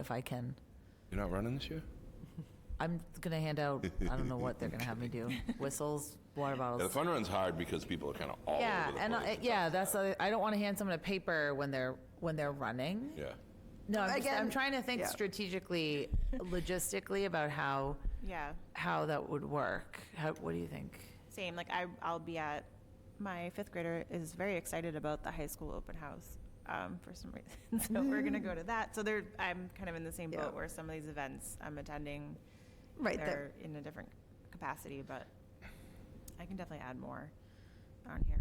if I can. You're not running this year? I'm gonna hand out, I don't know what they're gonna have me do, whistles, water Yeah, the bottles. fun run's hard because people are kind of all Yeah, over the and, place. I- yeah, that's, I I don't wanna hand someone a paper when they're, when they're running. yeah. No, I'm, just, I'm Again, trying to think yeah. strategically, logistically about how Yeah, how that would work. How, what do you think? same. Like I, I'll be at my fifth grader is very excited about the high school open house um, for some reason. so we're gonna go to that. So they're, I'm kind of in the same Yeah. boat where some of these events I'm attending, Right, they're there. in a different capacity, but I can definitely add more on here.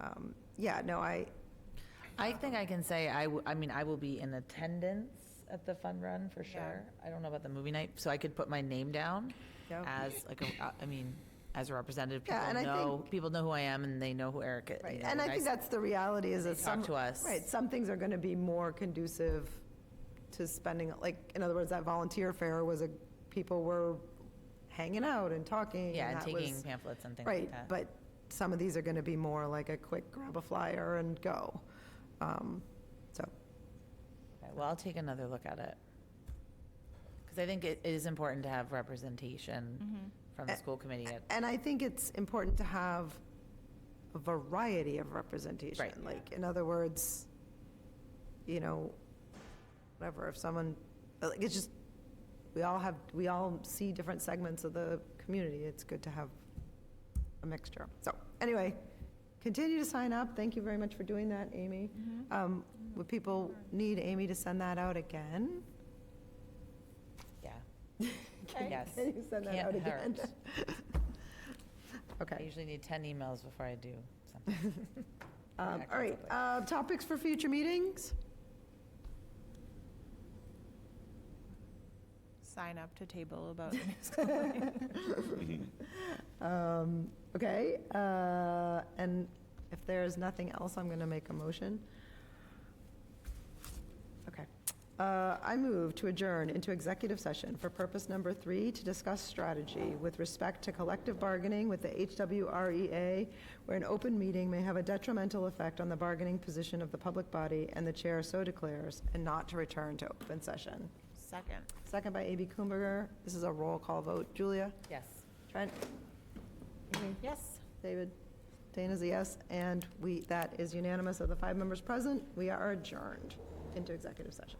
um, yeah, no, I, I think I can say I. W- I mean, I will be in attendance at the fun run for Yeah. sure. I don't know about the movie night, so I could put my name down Yep. as like a. uh, I mean, as a representative, people Yeah, and I know think- people know who I am and they know who Eric is. right, and I think that's the reality is that They talk some. to us. Right, some things are gonna be more conducive to spending, like, in other words, that volunteer fair was a, people were hanging out and talking. yeah, and that taking was- pamphlets and things Right, like that. but some of these are gonna be more like a quick grab a flyer and go. Um, So, Okay, well, I'll take another look at it because I think it, it is important to have representation Mm-hmm. from the A- school committee. At, And I think it's important to have a variety of representation. Right. Like, in other words, you know, whatever, if someone, like, it's just, we all have, we all see different segments of the community. It's good to have a mixture. So, anyway, continue to sign up. Thank you very much for doing that, Amy. Mm-hmm. Mm-hmm. Um, Would people need Amy to send that out again? yeah, Can- Yes. Can you send that Can't out again? hurt. I Okay. usually need 10 emails before I do something. Um, Yeah, All right, constantly. uh, topics for future meetings? Sign up to table about Mm-hmm. Um, Okay, uh, and if there's nothing else, I'm going to make a motion. Okay. Uh, I move to adjourn into executive session for purpose number three, to discuss strategy with respect to collective bargaining with the HWREA, E where an open meeting may have a detrimental effect on the bargaining position of the public body, and the chair so declares, and not to return to open session. second. Second by A.B. Kumberger. This is a roll call vote. Julia? Yes. Trent? Amy? Yes. David? Dana's a yes, and we, that is unanimous of the five members present. We are adjourned into executive session.